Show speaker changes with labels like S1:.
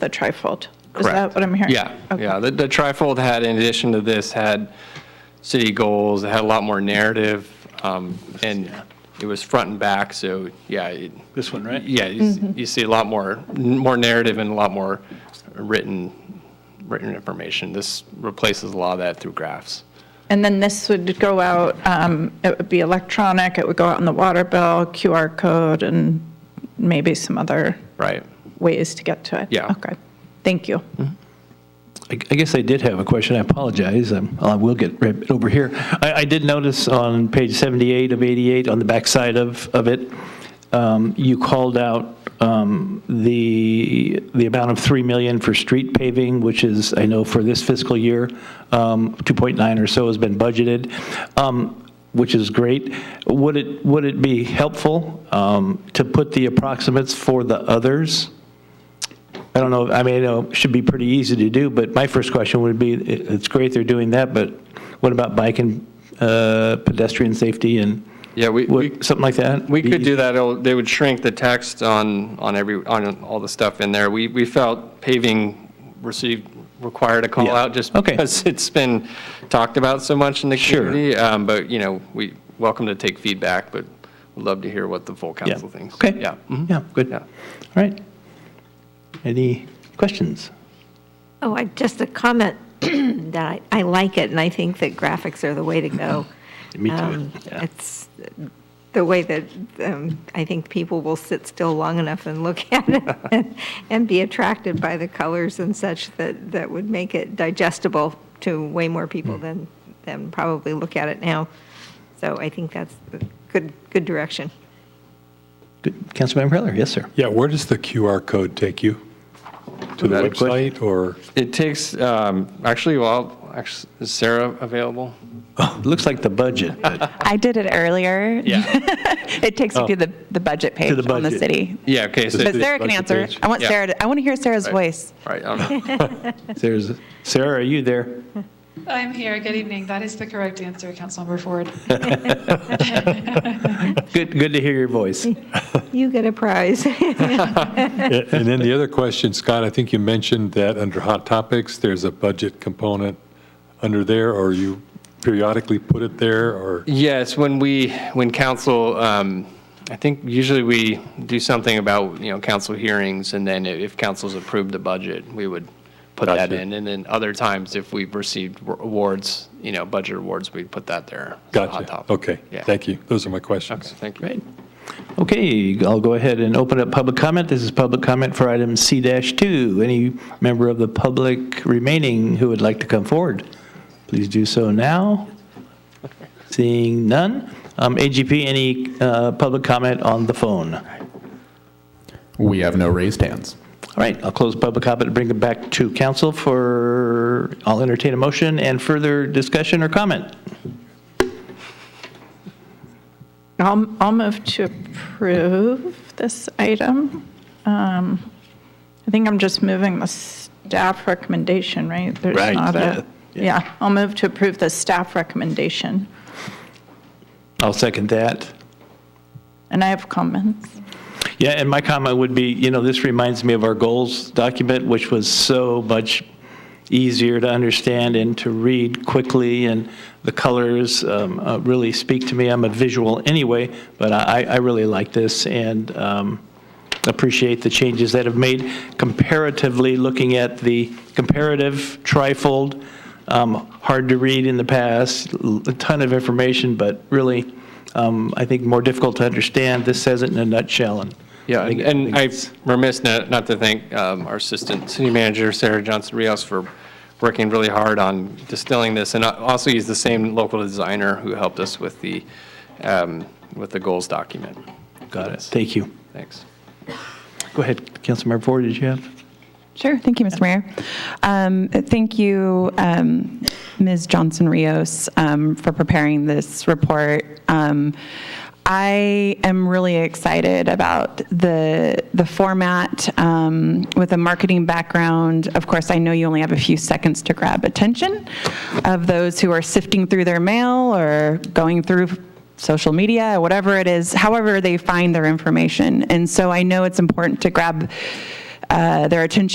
S1: the trifold. Is
S2: Correct.
S1: that what I'm hearing?
S2: Yeah,
S1: Okay.
S2: yeah. The, the trifold had, in addition to this, had city goals, it had a lot more narrative, um, and it was front and back, so, yeah. it-
S3: This one, right?
S2: Yeah, you s-
S1: Mm-hmm.
S2: you see a lot more, more narrative and a lot more written, written information. This replaces a lot of that through graphs.
S1: And then this would go out, um, it would be electronic, it would go out in the water bill, QR code, and maybe some other
S2: Right.
S1: ways to get to it?
S2: Yeah.
S1: Okay, thank you.
S3: I I guess I did have a question. I apologize. Um, I will get right over here. I, I did notice on page 78 of 88, on the backside of, of it, um, you called out um, the, the amount of 3 million for street paving, which is, I know for this fiscal year, um, 2.9 or so has been budgeted. Um, which is great. Would it, would it be helpful um, to put the approximates for the others? I don't know, I mean, I know it should be pretty easy to do, but my first question would be, it- it's great they're doing that, but what about bike and uh, pedestrian safety and
S2: Yeah, we- we-
S3: what- something like that?
S2: We could do that. It'll- They would shrink the text on, on every, on all the stuff in there. We, we felt paving received, required a call
S3: Yeah.
S2: out just
S3: Okay.
S2: because it's been talked about so much in the
S3: Sure.
S2: community. Um, But, you know, we, welcome to take feedback, but would love to hear what the full
S3: Yeah.
S2: council thinks.
S3: Okay.
S2: Yeah. Mhm.
S3: Yeah, good.
S2: Yeah.
S3: All right. Any questions?
S4: Oh, I, just a comment that I, I like it, and I think that graphics are the way to go.
S3: Me too,
S4: Um,
S3: yeah.
S4: It's the way that, um, I think people will sit still long enough and look at it and- and be attracted by the colors and such that, that would make it digestible to way more people
S3: Hmm.
S4: than, than probably look at it now. So I think that's a good, good direction.
S3: Good. Councilmember Heller, yes, sir.
S5: Yeah, where does the QR code take you? To the
S3: That a question?
S5: website or?
S2: It takes, um, actually, well, actually, is Sarah available?
S3: Looks like the budget, but
S6: I did it earlier.
S2: Yeah.
S6: It takes you to the, the budget page
S3: the
S6: on the
S3: budget.
S6: city.
S2: Yeah, okay, so,
S6: But
S5: the
S6: Sarah can
S5: budget
S6: answer.
S5: page.
S6: I want
S2: Yeah.
S6: Sarah, to- I want to hear Sarah's
S2: Right.
S6: voice.
S2: right, I don't know.
S3: there's, Sarah, are you there?
S7: I'm here. Good evening. That is the correct answer, Councilmember Ford.
S3: Good, good to hear your voice.
S4: You get a prize.
S5: And then the other question, Scott, I think you mentioned that under hot topics, there's a budget component under there, or you periodically put it there, or?
S2: Yes, when we, when council, um, I think usually we do something about, you know, council hearings, and then i- if council's approved the budget, we would put that
S5: Gotcha.
S2: in. And then other times, if we've received wa- awards, you know, budget awards, we'd put that there. as a hot
S5: Gotcha.
S2: topic.
S5: Okay,
S2: Yeah.
S5: thank you. Those are my questions.
S2: Okay, Thank you.
S3: Great. Okay, I'll go ahead and open up public comment. This is public comment for item C-2. Any member of the public remaining who would like to come forward, please do so now. Seeing none. Um, AGP, any uh, public comment on the phone? All
S8: We have no raised hands.
S3: right, I'll close public comment and bring it back to council for, I'll entertain a motion and further discussion or comment.
S1: I'll, I'll move to approve this item. Um, I think I'm just moving the staff recommendation, right? There's
S3: Right,
S1: not a-
S3: yeah,
S1: Yeah, I'll move to approve the staff recommendation,
S3: I'll second that.
S1: and I have comments.
S3: Yeah, and my comment would be, you know, this reminds me of our goals document, which was so much easier to understand and to read quickly, and the colors um, uh, really speak to me. I'm a visual anyway, but I, I really like this and um, appreciate the changes that have made comparatively, looking at the comparative trifold, um, hard to read in the past, l- a ton of information, but really, um, I think more difficult to understand. This says it in a nutshell, and
S2: Yeah, and-
S3: think-
S2: and
S3: think
S2: I'm remiss not not to thank um, our Assistant City Manager, Sarah Johnson Rios, for working really hard on distilling this, and I also use the same local designer who helped us with the, um, with the goals document.
S3: Got it. Thank you.
S2: Thanks.
S3: Go ahead, Councilmember Ford, did you have?
S6: Sure, thank you, Mr. Mayor. Um, Thank you, um, Ms. Johnson Rios, um, for preparing this report. Um, I am really excited about the, the format um, with a marketing background. Of course, I know you only have a few seconds to grab attention of those who are sifting through their mail or going through social media, whatever it is, however they find their information. And so I know it's important to grab uh, their attention